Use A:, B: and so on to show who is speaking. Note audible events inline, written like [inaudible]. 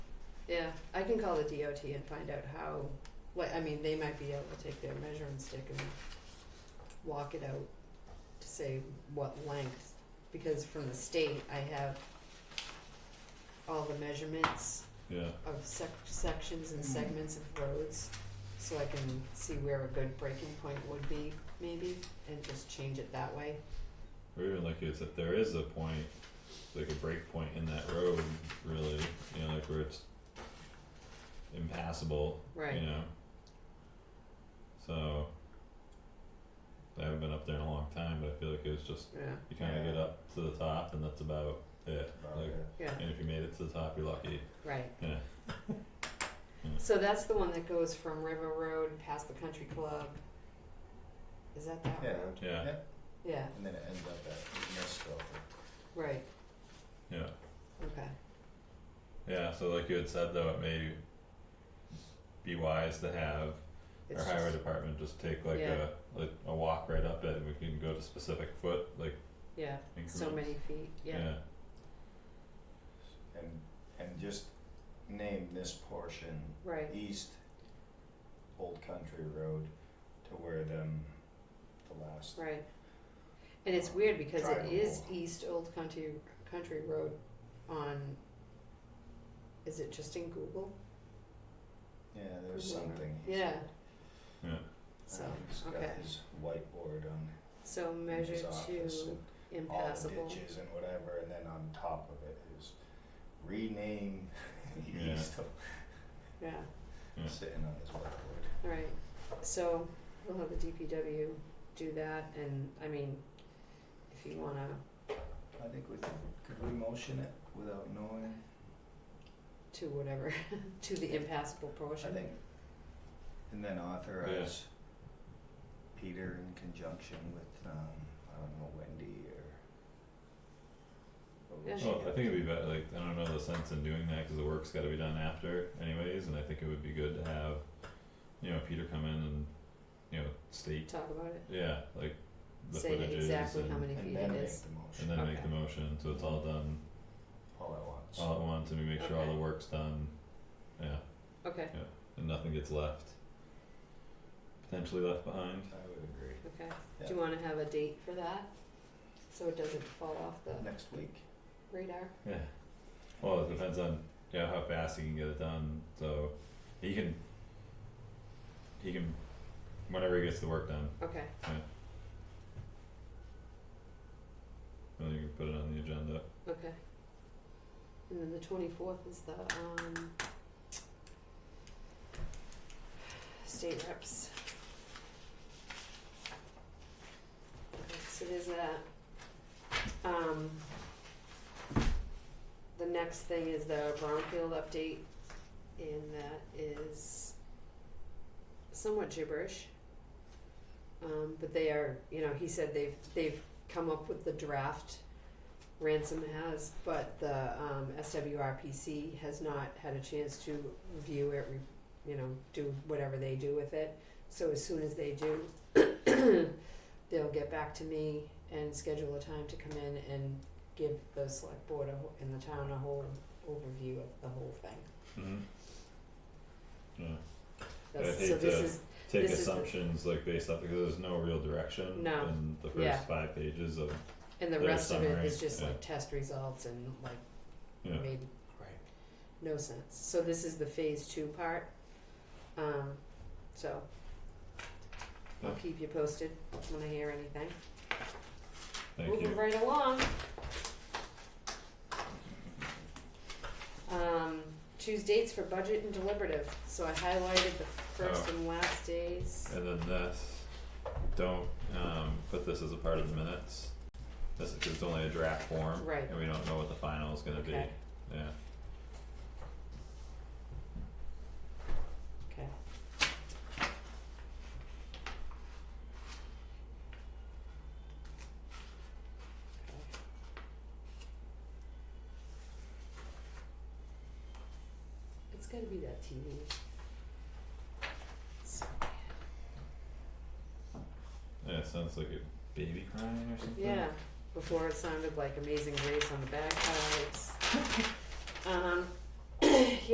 A: Yeah, I can call the DOT and find out how, what, I mean, they might be able to take their measuring stick and walk it out to say what length, because from the state, I have all the measurements
B: yeah,
A: of sec- sections and
C: Mhm.
A: segments of roads, so I can see where a good breaking point would be, maybe, and just change it that way.
B: or even like is if there is a point, like a break point in that road, really, you know, like where it's impassable, you
A: Right,
B: know? So, I haven't been up there in a long time, but I feel like it was just,
A: yeah,
B: you kinda get
C: Yeah.
B: up to the top and that's about it,
C: about
B: like,
C: it.
A: yeah,
B: and if you made it to the top, you're lucky,
A: right.
B: yeah,
A: [laughs] So that's the one that goes from River Road past the country club. Is that that
C: Yeah.
A: road?
B: yeah,
A: Yeah,
C: And then it ends up at Nesco.
A: right,
B: yeah.
A: okay,
B: Yeah, so like you had said though, it may be wise to have
A: it's
B: our highway
A: just,
B: department just take like
A: Yeah.
B: a like a walk right up it and we can go to specific foot like
A: yeah,
B: increments.
A: so many feet, yeah,
B: Yeah,
C: And, and just name this portion
A: right,
C: east Old Country Road to where them, the last,
A: right. And it's weird because it is
C: Drivable.
A: East Old Country, Country Road on, is it just in Google?
C: yeah, there's
A: Google.
C: something. he's-
A: Yeah,
B: yeah.
A: so,
C: uh, He's got
A: okay,
C: his whiteboard on
A: so
C: in his
A: measure
C: office
A: to
C: and all the
A: impassable,
C: ditches and whatever, and then on top of it is rename [laughs]
B: Yeah.
C: east of,
A: yeah,
B: Yeah.
C: sitting on his whiteboard.
A: alright. So we'll have the DPW do that and, I mean, if you wanna
C: I think we could, could we motion it without knowing?
A: to whatever, [laughs] to the impassable
C: I
A: portion.
C: think. And then authorize Peter in conjunction with, um, I don't know, Wendy or. or we
A: Yeah.
C: should
B: Well, Oh, I
C: get-
B: think it'd be better. Like I don't know the sense in doing that because the work's got to be done after anyways, and I think it would be good to have, you know, Peter come in and, you know, state
A: Talk about it,
B: yeah like the
A: say
B: footages
A: exactly how
B: and-
A: many
C: And
A: feet
C: then
A: it
C: make
A: is,
C: the
B: and
C: motion
B: then make
A: Okay.
B: the motion so it's all done
C: all at once.
B: all at once and we make sure all
A: Okay.
B: the work's done. Yeah.
A: okay,
B: and nothing gets left potentially left behind.
C: I would agree.
A: okay,
C: Yeah.
A: do you wanna have a date for that? So it doesn't fall off the
C: Next week.
A: radar,
B: Yeah. Well, it depends on yeah how fast he can get it done. So he can he can whenever he gets the work done,
A: okay,
B: then you can put it on the agenda.
A: okay. And then the twenty-fourth is the, um, state reps. Okay, so there's that. Um, the next thing is the brownfield update, and that is somewhat gibberish. Um, but they are, you know, he said they've they've come up with the draft. Ransom has, but the um, SWRPC has not had a chance to review it, re- you know, do whatever they do with it. So as soon as they do, [coughs] they'll get back to me and schedule a time to come in and give the select board a, wh- and the town a whole overview of the whole thing.
B: Mm-hmm. Yeah.
A: That's,
B: hate
A: so this
B: to-
A: is
B: Take
A: This is the-
B: assumptions like based off because there's no real direction
A: No.
B: in the first
A: Yeah.
B: five pages of
A: and the
B: their
A: rest of it
B: summary,
A: is just
B: yeah.
A: like test results and like
B: yeah.
A: made
C: Right.
A: no sense. So this is the phase two part. Um, so I'll
B: Yeah.
A: keep you posted when I hear anything.
B: Thank
A: Moving
B: you.
A: right along. Um, choose dates for budget and deliberative. So I highlighted the first
B: Oh.
A: and last days.
B: And then this, don't um put this as a part of the minutes. This is 'cause it's only a draft form.
A: Right.
B: And we don't know what the final is gonna be.
A: Okay.
B: Yeah.
A: Okay. It's gotta be that TV. So bad.
B: Yeah, it sounds like a baby crying or something.
A: Yeah, before it sounded like Amazing Grace on the bagpipes. Um, [clears throat] yeah,